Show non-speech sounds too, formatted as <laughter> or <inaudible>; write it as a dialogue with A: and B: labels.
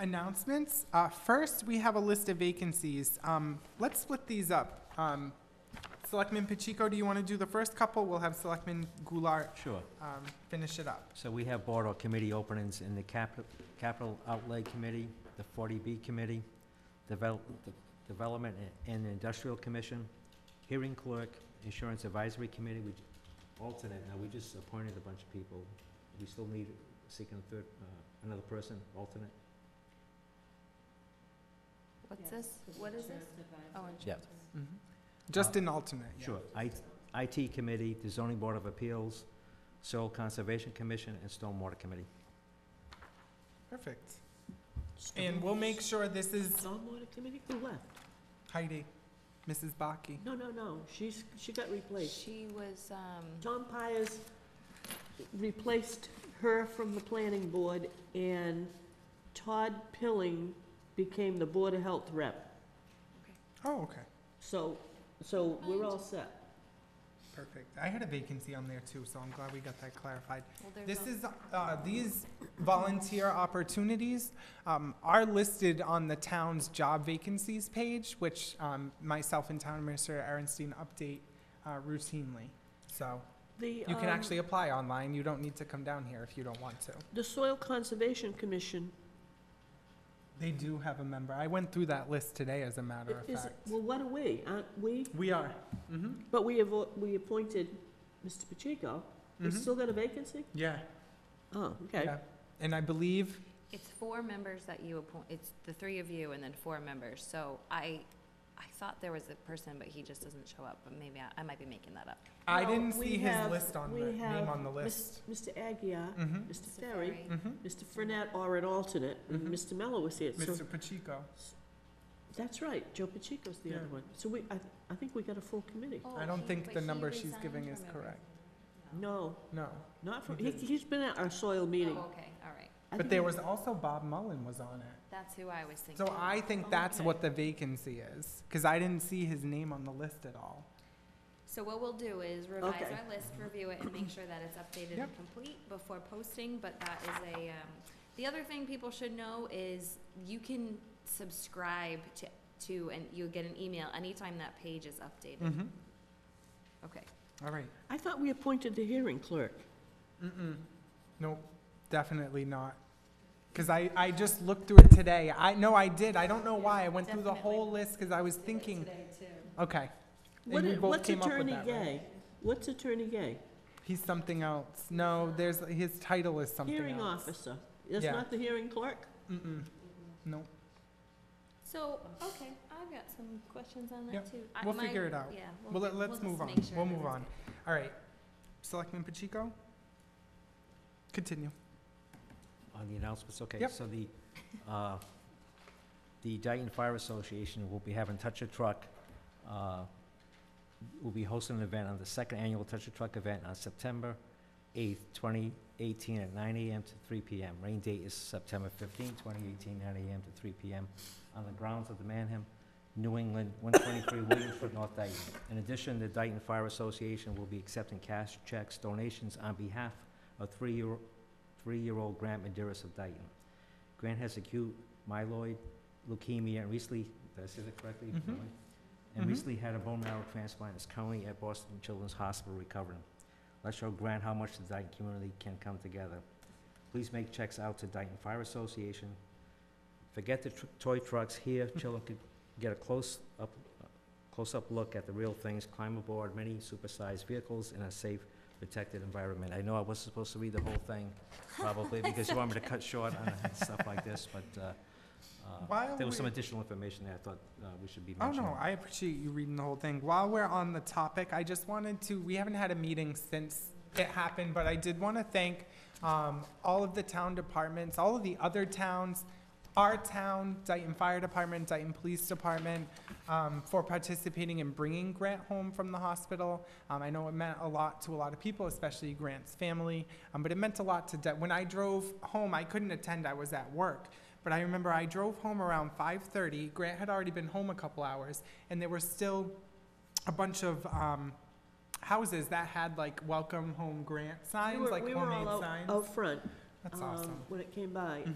A: Announcements. Uh, First, we have a list of vacancies. Um, Let's split these up. Um, Selectman Pacheco, do you want to do the first couple? We'll have Selectman Goulart
B: Sure.
A: um, finish it up.
B: So we have board or committee openings in the capital, capital outlay committee, the forty B committee, develop, development and industrial commission, hearing clerk, insurance advisory committee, we, alternate, now we just appointed a bunch of people. We still need, seeking a third, uh, another person, alternate?
C: What's this? What is this? Oh, insurance.
A: Mhm. Just an alternate. yeah.
B: Sure. I, IT committee, the zoning board of appeals, soil conservation commission, and stormwater committee.
A: Perfect. And we'll make sure this is
D: Stormwater committee, who left?
A: Heidi, Mrs. Baki.
D: No, no, no, she's, she got replaced.
C: She was, um,
D: Tom Pires replaced her from the planning board, and Todd Pilling became the Board of Health rep.
A: Oh, okay,
D: So, so we're all set.
A: perfect. I had a vacancy on there too, so I'm glad we got that clarified.
C: well, there's.
A: This
C: al-
A: is, uh, these volunteer opportunities um, are listed on the town's job vacancies page, which um, myself and town administrator Aaronstein update uh, routinely. So
D: The,
A: you can
D: um,
A: actually apply online. You don't need to come down here if you don't want to.
D: The Soil Conservation Commission
A: They do have a member. I went through that list today, as a matter of
D: is,
A: fact.
D: well, what are we? Aren't we?
A: We are. Mm-hmm.
D: But we have, we appointed Mr. Pacheco. We
A: Mhm.
D: still got a vacancy?
A: Yeah.
D: Oh, okay.
A: Yeah. And I believe,
C: It's four members that you appoint, it's the three of you and then four members. So I, I thought there was a person, but he just doesn't show up, but maybe I, I might be making that up.
A: I
D: No,
A: didn't
D: we
A: see his
D: have-
A: list on
D: we
A: the, name
D: have
A: on the list.
D: Mis- Mr. Aguirre,
A: Mhm.
D: Mr. Ferry,
C: Ferry.
A: Mm-hmm.
D: Mr. Fernet are an alternate, and
A: Mhm.
D: Mr. Mello was here, so,
A: Mr. Pacheco.
D: that's right, Joe Pacheco's the
A: Yeah.
D: other one. So we, I, I think we got a full committee.
C: Oh,
A: I don't
C: he-
A: think
C: but
A: the
C: he
A: number she's
C: resigned
A: giving
C: from
A: is
C: everything.
A: correct.
D: No,
A: No.
D: not from,
A: He
D: he,
A: didn't.
D: he's been at our soil
C: Oh,
D: meeting.
C: okay, all right.
D: I
A: But
D: think
A: there
D: he-
A: was also Bob Mullen was on it.
C: That's who I was thinking.
A: So I think that's
D: Okay.
A: what the vacancy is, because I didn't see his name on the list at all.
C: So what we'll do is revise
D: Okay.
C: our list, review it, and make sure that it's updated and
A: Yep.
C: complete before posting, but that is a, um, the other thing people should know is you can subscribe to, to, and you'll get an email anytime that page is updated.
A: Mm-hmm.
C: Okay,
A: All right.
D: I thought we appointed the hearing clerk.
A: Mm-mm. Nope, definitely not. Because I, I just looked through it today. I, no, I did. I don't know why. I went through the
C: Definitely.
A: whole list because I was thinking, okay. And
D: What
A: we
D: i-
A: both
D: What's
A: came up with
D: Attorney
A: that, right?
D: Gay? What's Attorney Gay?
A: He's something else. No, there's, his title is something else.
D: Hearing officer. That's
A: Yeah.
D: not the hearing clerk?
A: Mm-mm. Nope.
C: so, okay, I've got some questions on that
A: Yep,
C: too. I-
A: we'll
C: my-
A: figure it out.
C: Yeah. we'll
A: Well,
C: fi-
A: let- let's
C: just
A: move on.
C: make sure
A: We'll
C: that
A: move
C: it's
A: on.
C: good.
A: All right. Selectman Pacheco? Continue.
B: On the announcements, okay.
A: Yep.
B: So the, uh, the Dayton Fire Association will be having Touch a Truck, uh, will be hosting an event on the second annual Touch a Truck event on September eighth, twenty eighteen, at nine AM to three PM. Rain date is September fifteenth, twenty eighteen, nine AM to three PM, on the grounds of the Manham, New England, one twenty-three Williamsford, North Dayton. In addition, the Dayton Fire Association will be accepting cash checks, donations on behalf of three-year, three-year-old Grant Maderas of Dayton. Grant has acute myeloid leukemia and recently, did I say that correctly?
A: Mhm.
B: Myeloid? And
A: Mhm.
B: recently had a bone marrow transplant, is currently at Boston Children's Hospital recovering. Let's show Grant how much the Dayton community can come together. Please make checks out to Dayton Fire Association. Forget the tr- toy trucks here,
A: <laughs>
B: children could get a close-up, close-up look at the real things, climb aboard many supersized vehicles in a safe, protected environment. I know I wasn't supposed to read the whole thing,
A: <laughs>
B: probably, because you want me to cut short on stuff like this, but, uh, uh,
A: While
B: there was some
A: we're-
B: additional information there I thought, uh, we should be
A: Oh,
B: mentioning.
A: no, I appreciate you reading the whole thing. While we're on the topic, I just wanted to, we haven't had a meeting since it happened, but I did want to thank um, all of the town departments, all of the other towns, our town, Dayton Fire Department, Dayton Police Department, um, for participating in bringing Grant home from the hospital. Um, I know it meant a lot to a lot of people, especially Grant's family, um, but it meant a lot to, De- when I drove home, I couldn't attend, I was at work. But I remember I drove home around 5:30. Grant had already been home a couple hours, and there were still a bunch of um, houses that had like "Welcome Home Grant"
D: We
A: signs,
D: were-
A: like
D: we were all
A: homemade
D: out-
A: signs.
D: Out front,
A: That's
D: um,
A: awesome.
D: when it came by.